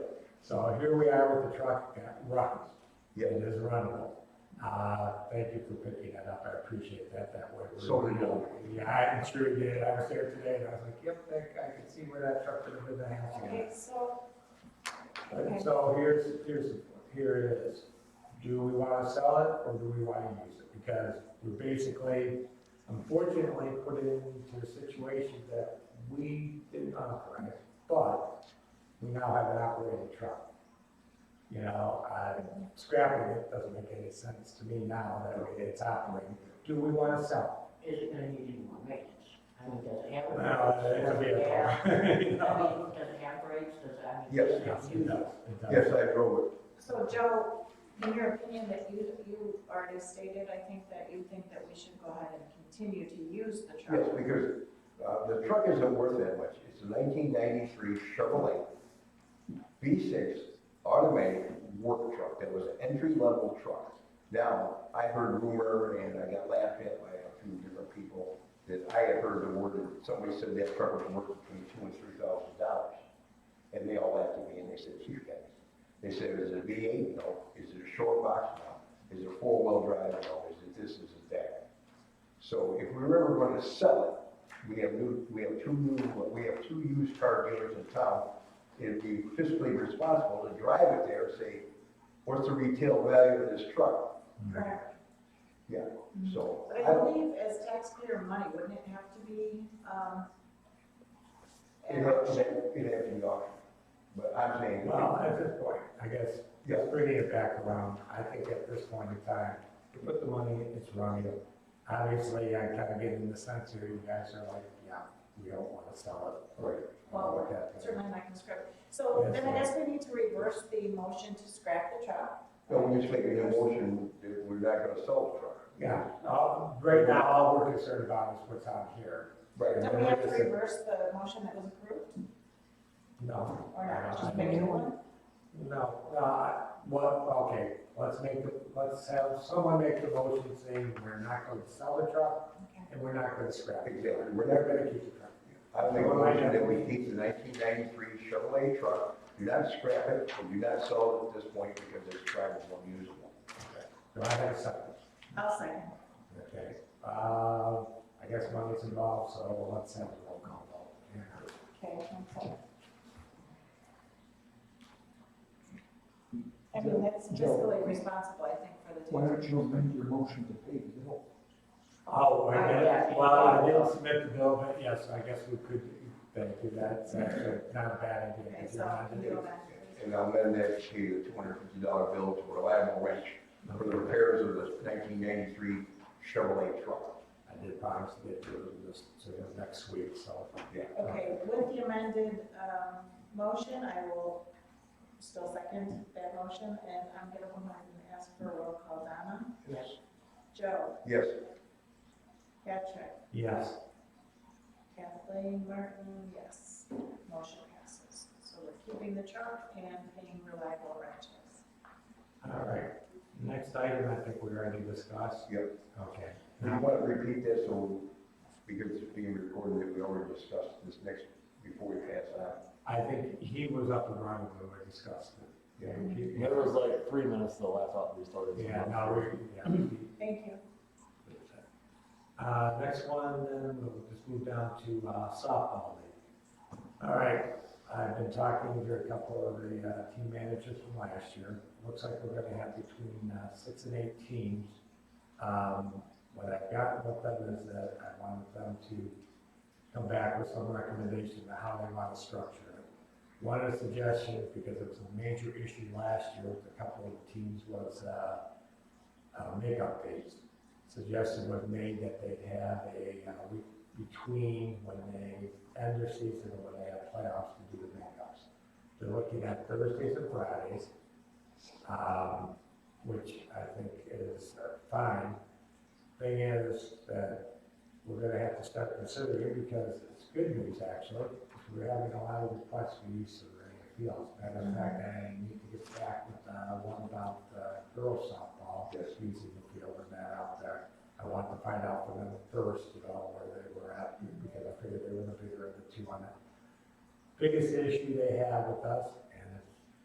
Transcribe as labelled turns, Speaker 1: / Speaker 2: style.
Speaker 1: So here we are with the truck that runs.
Speaker 2: Yeah.
Speaker 1: It is runnable. Uh, thank you for picking that up, I appreciate that, that way. we're-
Speaker 2: So did
Speaker 1: Yeah, I'm sure you did, I was there today, and I was like, yep, that, I could see where that truck could have been that house again.
Speaker 3: Okay, so, okay.
Speaker 1: But, So here's, here's, here it is. Do we wanna sell it, or do we wanna use it? Because we're basically, unfortunately, put into a situation that we didn't authorize, but we now have an operating truck. You know, uh, scrapping it doesn't make any sense to me now that it's operating. Do we wanna sell?
Speaker 4: Is it gonna need any more maintenance? I mean, does it have?
Speaker 1: it? Well, it's a
Speaker 4: Yeah.
Speaker 1: vehicle. You
Speaker 4: I
Speaker 1: know?
Speaker 4: mean, does it have brakes, does it, I mean?
Speaker 2: Yes.
Speaker 1: Yes, it does, it does.
Speaker 2: Yes, I drove
Speaker 3: so Joe, in your opinion that you, you already stated, I think that you think that we should go ahead and continue to use the
Speaker 2: it. Yes,
Speaker 3: truck.
Speaker 2: because uh, the truck isn't worth that much. It's a 1993 Chevrolet V6 automatic work truck that was an entry-level truck. Now, I heard rumor and I got laughed at by a few different people that I had heard the word that somebody said that truck was worth between two and three thousand dollars. And they all laughed at me and they said, you guys. They said, is it a V eight? No. Is it a short box? No. Is it four-wheel drive? No. Is it this? Is it that? So if we were ever gonna sell it, we have new, we have two new, we have two used car dealers in town. It'd be fiscally responsible to drive it there, and say, what's the retail value of this truck?
Speaker 3: Correct.
Speaker 2: Yeah, so.
Speaker 3: But
Speaker 2: I
Speaker 3: I
Speaker 2: don't-
Speaker 3: believe as taxpayer money, wouldn't it have to be, um,
Speaker 2: It has, it has to be auctioned, but I'm saying,
Speaker 1: Well, at this point, I guess,
Speaker 2: Yeah.
Speaker 1: just bringing it back around, I think at this point in time, you put the money, in, it's running. Obviously, I kind of get in the sense here, you guys are like, yeah, we don't want to sell it.
Speaker 2: right,
Speaker 1: Well, look at that.
Speaker 3: certainly not conscript. So
Speaker 1: Yes,
Speaker 3: then I
Speaker 1: ma'am.
Speaker 3: guess we need to reverse the motion to scrap the truck.
Speaker 2: don't we just make a motion that we're not gonna sell the truck?
Speaker 1: Yeah, uh, right now, all we're concerned about is what's on here.
Speaker 2: Right.
Speaker 3: Don't we have to reverse the motion that was approved
Speaker 1: No.
Speaker 3: or not?
Speaker 1: I
Speaker 3: Just make a new
Speaker 1: mean,
Speaker 3: one?
Speaker 1: No, uh, well, okay, let's make, the let's have someone make the motion saying we're not going to sell the truck
Speaker 3: Okay.
Speaker 1: and we're not going to scrap it.
Speaker 2: Exactly, we're
Speaker 1: We're
Speaker 2: not
Speaker 1: not going to keep the truck.
Speaker 2: I make a motion that we keep the nineteen ninety-three Chevrolet truck, do not scrap it, and do not sell it at this point because it's drivable and usable.
Speaker 1: Do I have a second?
Speaker 3: I'll second.
Speaker 1: Okay, uh, I guess money's involved, so let's have a roll call vote. Yeah.
Speaker 3: Okay, one second. I mean, that's fiscally responsible, I think, for the
Speaker 5: Why
Speaker 3: taxpayer.
Speaker 5: don't you amend your motion to pay the bill?
Speaker 1: Oh,
Speaker 3: Uh,
Speaker 1: I
Speaker 4: Yeah.
Speaker 1: guess, well, I did submit the bill, but yes, I guess we could, thank you, that's actually not a bad idea.
Speaker 3: Okay,
Speaker 1: if
Speaker 3: so
Speaker 1: you're not-
Speaker 3: you don't have
Speaker 2: And I'll amend that to a two hundred fifty dollar bill to reliable wrench for the repairs of the nineteen ninety-three Chevrolet truck.
Speaker 1: I did promise to get to this, to the next week, so.
Speaker 2: Yeah.
Speaker 3: Okay, with the amended, um, motion, I will still second that motion, and I'm gonna go ahead and ask for a roll call. Donna?
Speaker 4: Yes.
Speaker 3: Joe?
Speaker 2: Yes,
Speaker 3: Patrick?
Speaker 1: Yes,
Speaker 3: Kathleen Martin, yes. Motion passes. So we're keeping the truck and paying reliable wrenches.
Speaker 1: all right. Next item, I think we already discussed.
Speaker 2: Yep.
Speaker 1: Okay.
Speaker 2: do you want to repeat this so, because it's being recorded, that we already discussed this next, before we pass it on?
Speaker 1: I think he was up and running when we discussed it.
Speaker 2: Yeah.
Speaker 1: Yeah,
Speaker 6: It was like three minutes till I thought we started.
Speaker 1: Yeah, now we, yeah,
Speaker 3: Thank you.
Speaker 1: Uh, next one, then we'll just move down to uh, softball league. All right, I've been talking to a couple of the uh, team managers from last year. Looks like we're gonna have between uh, six and eight teams. Um, What I've got with them is that I wanted them to come back with some recommendation on how they want to structure it. One of the suggestions, because it was a major issue last year with a couple of the teams, was uh, uh, makeup days suggestion was made that they have a uh, week between when they end their season and when they have playoffs to do the makeups. They're looking at Thursdays and Fridays, um, which I think is uh, fine. Thing is that we're gonna have to start considering, because it's good news actually, we're having a lot of requests for use of the fields. Matter of fact, I need to get back with, uh, one about, uh, girls softball,
Speaker 2: Yes.
Speaker 1: using the field and that out there. I wanted to find out from them first, you know, where they were at, because I figured they were the bigger of the two on that. Biggest issue they have with us